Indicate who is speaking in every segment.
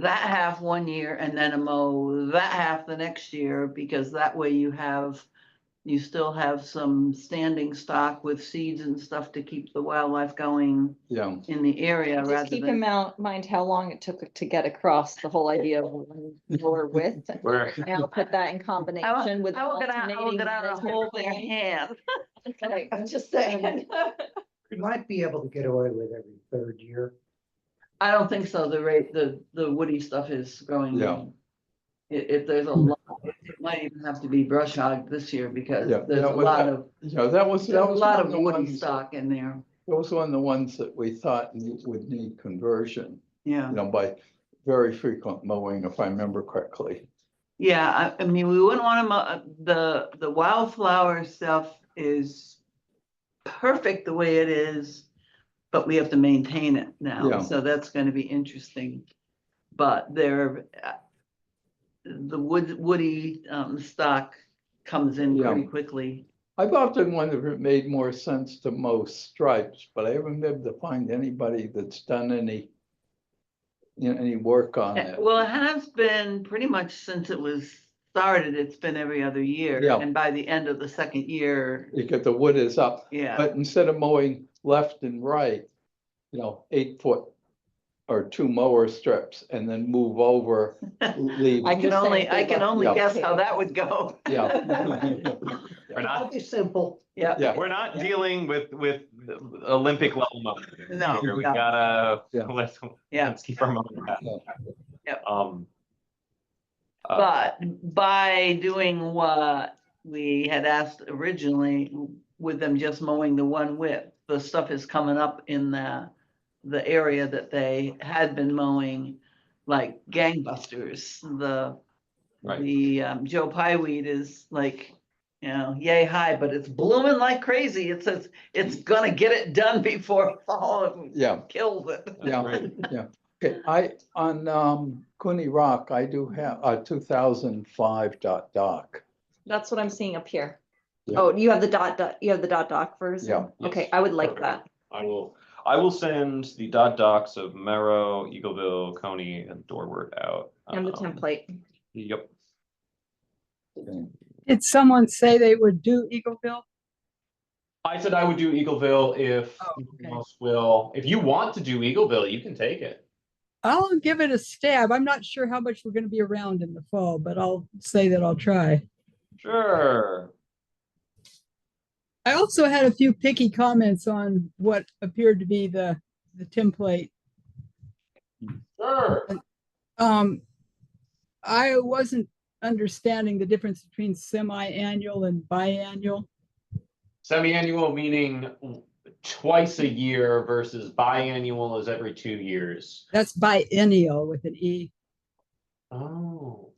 Speaker 1: that half one year and then a mow that half the next year, because that way you have, you still have some standing stock with seeds and stuff to keep the wildlife going
Speaker 2: Yeah,
Speaker 1: in the area
Speaker 3: Just
Speaker 1: rather
Speaker 3: keep
Speaker 1: than.
Speaker 3: in mou- mind how long it took to get across the whole idea of or width.
Speaker 2: where,
Speaker 3: Now put that in combination with.
Speaker 1: I will get out, I will
Speaker 3: alternating
Speaker 1: get out a
Speaker 3: management
Speaker 1: whole thing
Speaker 3: plan.
Speaker 1: in hand.
Speaker 3: Okay.
Speaker 4: I'm just saying, you might be able to get away with every third year.
Speaker 1: I don't think so. The rate, the, the woody stuff is growing.
Speaker 2: Yeah. Hmm.
Speaker 1: I- If, there's a lot, it might even have to be brush hog this year because
Speaker 2: Yeah,
Speaker 1: there's
Speaker 2: yeah,
Speaker 1: a
Speaker 2: with
Speaker 1: lot
Speaker 2: that-
Speaker 1: of,
Speaker 2: yeah, that was,
Speaker 1: there's a
Speaker 2: that was.
Speaker 1: lot
Speaker 2: one
Speaker 1: of
Speaker 2: the
Speaker 1: woody
Speaker 2: ones-
Speaker 1: stock in there.
Speaker 2: That was one of the ones that we thought ne- would need conversion,
Speaker 1: Yeah.
Speaker 2: you know, by very frequent mowing, if I remember correctly.
Speaker 1: Yeah, I, I mean, we wouldn't want them, the, the wildflower stuff is perfect the way it is, but we have to maintain it now,
Speaker 2: Yeah.
Speaker 1: so that's gonna be interesting. But there, uh, the wood, woody, um, stock comes in pretty quickly.
Speaker 2: I've often wondered if it made more sense to mow stripes, but I haven't been able to find anybody that's done any, you know, any work on
Speaker 1: Uh,
Speaker 2: it.
Speaker 1: Well, it has been pretty much since it was started, it's been every other year,
Speaker 2: Yeah.
Speaker 1: and by the end of the second year,
Speaker 2: You get the wood is up,
Speaker 1: yeah,
Speaker 2: But instead of mowing left and right, you know, eight foot or two mower strips and then move over, leave.
Speaker 1: I
Speaker 3: You're
Speaker 1: can
Speaker 3: saying
Speaker 1: only,
Speaker 3: they
Speaker 1: I can
Speaker 3: left
Speaker 1: only
Speaker 2: it
Speaker 1: guess how
Speaker 3: open.
Speaker 1: that would go.
Speaker 2: Yeah.
Speaker 5: We're
Speaker 4: That'll
Speaker 5: not,
Speaker 4: be simple.
Speaker 1: Yeah.
Speaker 2: Yeah,
Speaker 5: we're not dealing with, with Olympic level money.
Speaker 1: No, no.
Speaker 5: We gotta,
Speaker 2: Yeah.
Speaker 5: let's,
Speaker 1: Yeah,
Speaker 5: let's keep our money back.
Speaker 1: Yep.
Speaker 5: Um. uh,
Speaker 1: but by doing what we had asked originally, with them just mowing the one width, the stuff is coming up in the, the area that they had been mowing, like gangbusters, the,
Speaker 5: Right.
Speaker 1: the um, Joe Pyeweed is like, you know, yay high, but it's blooming like crazy. It says, it's gonna get it done before fall
Speaker 2: yeah,
Speaker 1: kills it.
Speaker 5: that's
Speaker 2: yeah,
Speaker 5: great.
Speaker 2: yeah. Okay, I, on, um, Cooney Rock, I do have, uh, two thousand five dot doc.
Speaker 3: That's what I'm seeing up here.
Speaker 2: Yeah.
Speaker 3: Oh, you have the dot, dot, you have the dot doc version?
Speaker 2: Yeah.
Speaker 3: Okay, I would like
Speaker 5: Perfect.
Speaker 3: that.
Speaker 5: I will, I will send the dot docs of Merrow, Eagleville, Coney and Dorward out.
Speaker 3: And
Speaker 2: Uh,
Speaker 3: the
Speaker 5: um,
Speaker 3: template.
Speaker 5: Yep,
Speaker 6: Did someone say they would do Eagleville?
Speaker 5: I said I would do Eagleville if
Speaker 6: Oh,
Speaker 5: you
Speaker 6: okay.
Speaker 5: most will, if you want to do Eagleville, you can take it.
Speaker 6: I'll give it a stab. I'm not sure how much we're gonna be around in the fall, but I'll say that I'll try.
Speaker 5: Sure,
Speaker 6: I also had a few picky comments on what appeared to be the, the template.
Speaker 5: sure.
Speaker 6: Um, I wasn't understanding the difference between semi-annual and biannual.
Speaker 5: Semi-annual meaning twice a year versus biannual is every two years.
Speaker 6: That's biennial with an E.
Speaker 5: Oh.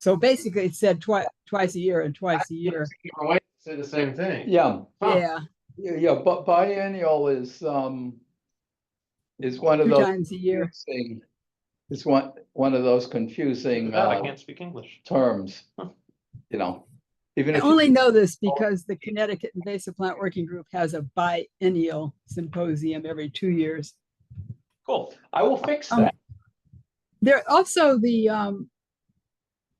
Speaker 6: So basically it said twice, twice a year and twice a year.
Speaker 5: My wife said the same thing.
Speaker 2: Yeah,
Speaker 5: Huh.
Speaker 6: Yeah,
Speaker 2: yeah, yeah, but biennial is, um, is one of
Speaker 6: two
Speaker 2: those
Speaker 6: times a year.
Speaker 2: confusing, is one, one of those confusing,
Speaker 5: That I
Speaker 2: uh,
Speaker 5: can't speak English.
Speaker 2: terms, you know, even
Speaker 6: I
Speaker 2: if. you- Oh.
Speaker 6: only know this because the Connecticut Invasive Plant Working Group has a biennial symposium every two years.
Speaker 5: Cool. I will fix
Speaker 6: Um,
Speaker 5: that.
Speaker 6: There also the um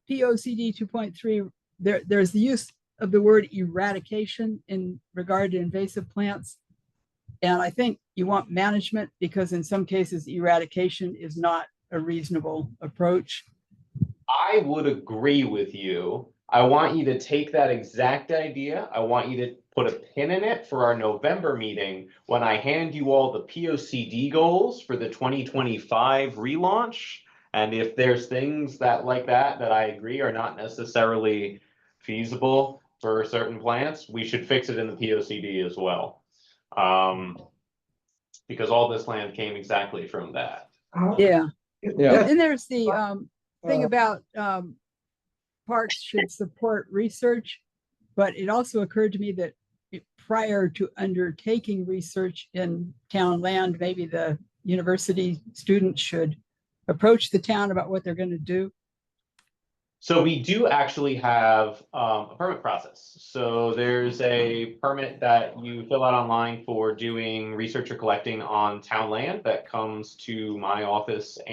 Speaker 6: P O C D two point three, there there's the use of the word eradication in regard to invasive plants. And I think you want management because in some cases eradication is not a reasonable approach.
Speaker 5: I would agree with you. I want you to take that exact idea. I want you to put a pin in it for our November meeting when I hand you all the P O C D goals for the twenty twenty-five relaunch. And if there's things that like that, that I agree are not necessarily feasible for certain plants, we should fix it in the P O C D as well. Um, because all this land came exactly from that.
Speaker 4: How-
Speaker 6: Yeah.
Speaker 2: Yeah.
Speaker 6: And there's the um thing
Speaker 4: Uh,
Speaker 6: about um parks should support research, but it also occurred to me that it- prior to undertaking research in town land, maybe the university students should approach the town about what they're gonna do.
Speaker 5: So we do actually have um, a permit process. So there's a permit that you fill out online for doing research or collecting on town land that comes to my office